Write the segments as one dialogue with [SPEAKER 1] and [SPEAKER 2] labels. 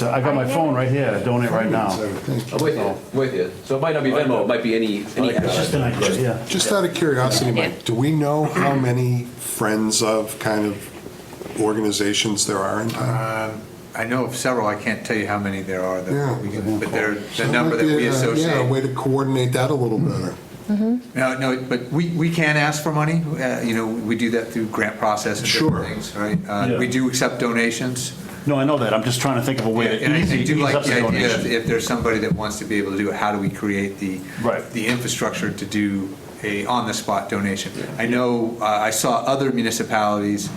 [SPEAKER 1] So I got my phone right here, donate right now.
[SPEAKER 2] I'm with
[SPEAKER 1] Oh.
[SPEAKER 2] you, I'm with you. So it might not be Venmo, it might be any, any.
[SPEAKER 1] It's just an idea, yeah.
[SPEAKER 3] Just out of curiosity, Mike, do we know how many friends of kind of organizations there are in town?
[SPEAKER 4] Um, I know of several, I can't tell you how many there are,
[SPEAKER 3] Yeah.
[SPEAKER 4] that we can- but they're,
[SPEAKER 3] So
[SPEAKER 4] the
[SPEAKER 3] it
[SPEAKER 4] number
[SPEAKER 3] might
[SPEAKER 4] that
[SPEAKER 3] be
[SPEAKER 4] we
[SPEAKER 3] a- uh, Yeah, a way
[SPEAKER 4] associate.
[SPEAKER 3] to coordinate that a little better.
[SPEAKER 4] No, no, but we, we can ask for money, uh, you know, we do that through grant process and
[SPEAKER 3] Sure.
[SPEAKER 4] different things, right? Uh,
[SPEAKER 1] Yeah.
[SPEAKER 4] We do accept donations.
[SPEAKER 1] No, I know that, I'm just trying to think of a way
[SPEAKER 4] And
[SPEAKER 1] to
[SPEAKER 4] I-
[SPEAKER 1] ease
[SPEAKER 4] I do
[SPEAKER 1] ease
[SPEAKER 4] like
[SPEAKER 1] up the
[SPEAKER 4] the idea of
[SPEAKER 1] donation.
[SPEAKER 4] if there's somebody that wants to be able to do it, how do we create the,
[SPEAKER 1] Right.
[SPEAKER 4] the infrastructure to do a on-the-spot donation? I know, uh, I saw other municipalities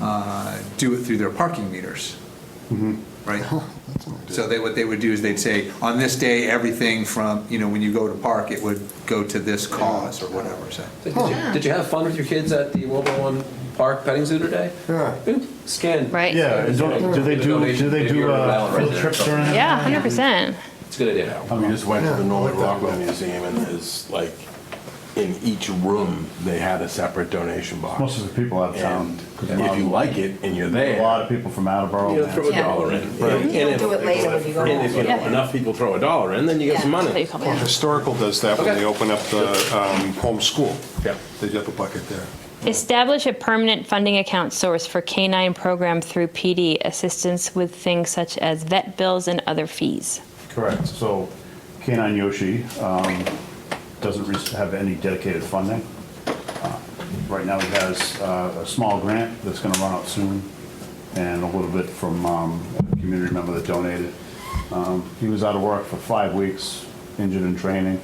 [SPEAKER 4] uh, do it through their parking meters,
[SPEAKER 1] Mm-hmm.
[SPEAKER 4] right? So they, what they would do is they'd say, on this day, everything from, you know, when you go to park, it would go to this cause or whatever, so.
[SPEAKER 2] Did you- did you have fun with your kids at the World War One Park petting zoo today?
[SPEAKER 3] Yeah.
[SPEAKER 2] Scan.
[SPEAKER 5] Right.
[SPEAKER 1] Yeah, and don't- do they do, do they do uh, field trips or anything?
[SPEAKER 5] Yeah, hundred percent.
[SPEAKER 2] It's a good idea.
[SPEAKER 1] I
[SPEAKER 6] We
[SPEAKER 1] mean,
[SPEAKER 6] just went to the Norman Rockwell Museum and there's like, in each room, they had a separate donation
[SPEAKER 1] Most
[SPEAKER 6] box.
[SPEAKER 1] of the people out of town.
[SPEAKER 6] And if you like it and
[SPEAKER 1] A
[SPEAKER 6] you're
[SPEAKER 1] lot
[SPEAKER 6] there,
[SPEAKER 1] of people from
[SPEAKER 6] you know, throw
[SPEAKER 1] Attleboro.
[SPEAKER 6] a dollar in. And if-
[SPEAKER 7] do it later when you go
[SPEAKER 6] And if you know,
[SPEAKER 5] Yeah.
[SPEAKER 6] enough people throw a dollar in, then you get some
[SPEAKER 5] That's how you
[SPEAKER 6] money.
[SPEAKER 5] come
[SPEAKER 3] Well,
[SPEAKER 5] in.
[SPEAKER 3] Historical does that when
[SPEAKER 2] Okay.
[SPEAKER 3] they open up the um, home school.
[SPEAKER 6] Yeah.
[SPEAKER 3] They have a bucket there.
[SPEAKER 5] Establish a permanent funding account source for K-9 program through PD assistance with things such as vet bills and other fees.
[SPEAKER 1] Correct, so K-9 Yoshi um, doesn't re- have any dedicated funding. Uh, Right now, he has uh, a small grant that's gonna run out soon, and a little bit from um, a community member that donated. Um, He was out of work for five weeks, injured in training,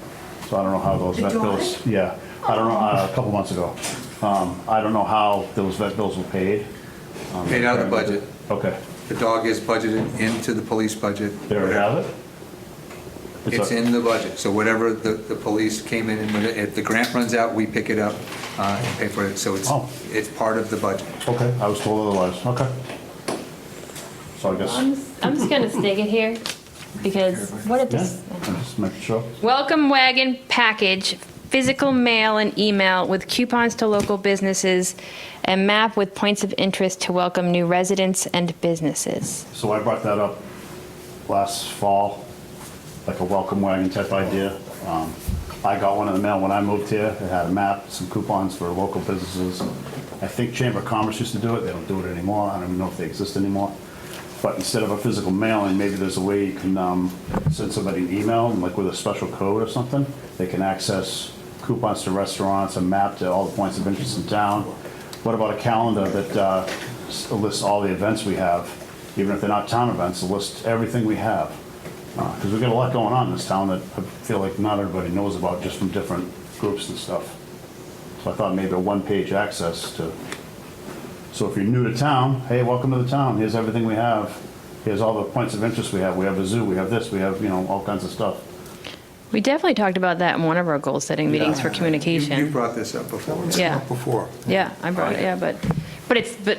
[SPEAKER 1] so I don't know how those vet bills. Yeah, I don't know, uh, a couple months ago. Um, I don't know how those vet bills were paid.
[SPEAKER 4] Paid out of the budget.
[SPEAKER 1] Okay,
[SPEAKER 4] The dog is budgeted into the police budget.
[SPEAKER 1] there we have it.
[SPEAKER 4] It's
[SPEAKER 1] a-
[SPEAKER 4] in the budget, so whatever the, the police came in, and when it- if the grant runs out, we pick it up uh, and pay for it, so it's,
[SPEAKER 1] Oh.
[SPEAKER 4] it's part of the budget.
[SPEAKER 1] Okay, I was told otherwise, okay. So I guess,
[SPEAKER 5] I'm, I'm just gonna stick it here because what if
[SPEAKER 1] yeah,
[SPEAKER 5] this?
[SPEAKER 1] I'm just making sure.
[SPEAKER 5] Welcome wagon package, physical mail and email with coupons to local businesses, a map with points of interest to welcome new residents and businesses.
[SPEAKER 1] So I brought that up last fall, like a welcome wagon type idea. Um, I got one in the mail when I moved here, it had a map, some coupons for local businesses. I think Chamber of Commerce used to do it, they don't do it anymore, I don't even know if they exist anymore. But instead of a physical mailing, maybe there's a way you can um, send somebody an email, like with a special code or something. They can access coupons to restaurants, a map to all the points of interest in town. What about a calendar that uh, s- lists all the events we have, even if they're not town events, it lists everything we have? Because Uh, we've got a lot going on in this town that I feel like not everybody knows about, just from different groups and stuff. So I thought maybe a one-page access to so if you're new to town, hey, welcome to the town, here's everything we have, here's all the points of interest we have, we have a zoo, we have this, we have, you know, all kinds of stuff.
[SPEAKER 5] We definitely talked about that in one of our goal-setting meetings for
[SPEAKER 4] You you
[SPEAKER 5] communication.
[SPEAKER 4] brought this up before.
[SPEAKER 5] Yeah.
[SPEAKER 3] Before.
[SPEAKER 5] Yeah, I brought it,
[SPEAKER 2] yeah.
[SPEAKER 5] Oh, yeah, but, but it's, but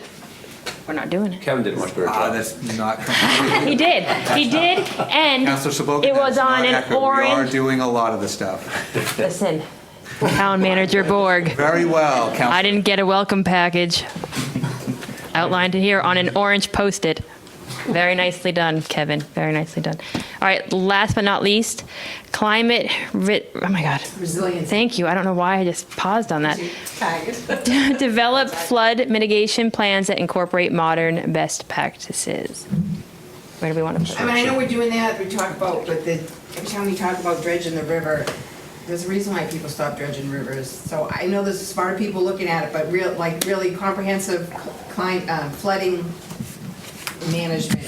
[SPEAKER 5] we're not doing it.
[SPEAKER 2] Kevin did a much better
[SPEAKER 4] Ah,
[SPEAKER 2] job.
[SPEAKER 4] that's not, complete.
[SPEAKER 5] He did, he did, and
[SPEAKER 4] Counselor Sobel.
[SPEAKER 5] it was
[SPEAKER 4] that's not
[SPEAKER 5] on an
[SPEAKER 4] accurate. We are
[SPEAKER 5] orange,
[SPEAKER 4] doing a lot of the stuff.
[SPEAKER 5] listen, town manager Borg,
[SPEAKER 4] Very well,
[SPEAKER 5] I
[SPEAKER 4] Counselor.
[SPEAKER 5] didn't get a welcome package outlined here on an orange Post-it. Very nicely done, Kevin, very nicely done. All right, last but not least, climate, ri- oh my God,
[SPEAKER 7] Resilience.
[SPEAKER 5] thank you, I don't know why I just paused on that. Develop flood mitigation plans that incorporate modern best practices. Where do we want to put
[SPEAKER 7] I
[SPEAKER 5] it?
[SPEAKER 7] mean, I know we're doing that, we talk about, but the, every time we talk about dredging the river, there's a reason why people stop dredging rivers. So I know there's smarter people looking at it, but real, like, really comprehensive climate, um, flooding management,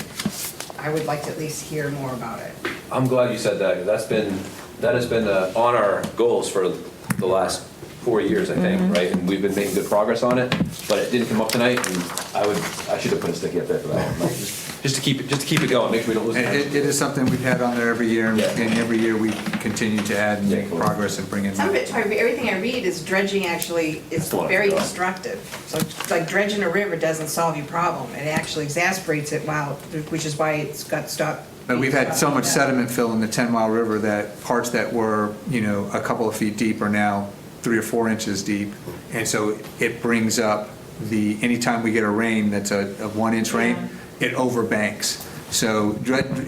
[SPEAKER 7] I would like to at least hear more about it.
[SPEAKER 2] I'm glad you said that, 'cause that's been, that has been uh, on our goals for the last four years, I think, right? And we've been making good progress on it, but it didn't come up tonight, and I would, I should have put a sticky up there for that one. like, just- Just to keep, it, just to keep it going, make sure we don't lose.
[SPEAKER 4] And It,
[SPEAKER 2] it.
[SPEAKER 4] it is something we've had on there every year, and
[SPEAKER 2] Yeah.
[SPEAKER 4] and every year we continue to add and
[SPEAKER 2] Yeah,
[SPEAKER 4] make
[SPEAKER 2] cool.
[SPEAKER 4] progress and bring in.
[SPEAKER 7] Some of it, I- everything I read is dredging actually is
[SPEAKER 2] That's what I
[SPEAKER 7] very
[SPEAKER 2] forgot.
[SPEAKER 7] destructive. So it's like dredging a river doesn't solve your problem, it actually exacerbates it, wow, which is why it's got stopped.
[SPEAKER 4] But we've had so much
[SPEAKER 7] Yeah.
[SPEAKER 4] sediment fill in the 10 Mile River that parts that were, you know, a couple of feet deep are now three or four inches deep. And so it brings up the, anytime we get a rain that's a, a one inch rain, it overbanks. So dredge,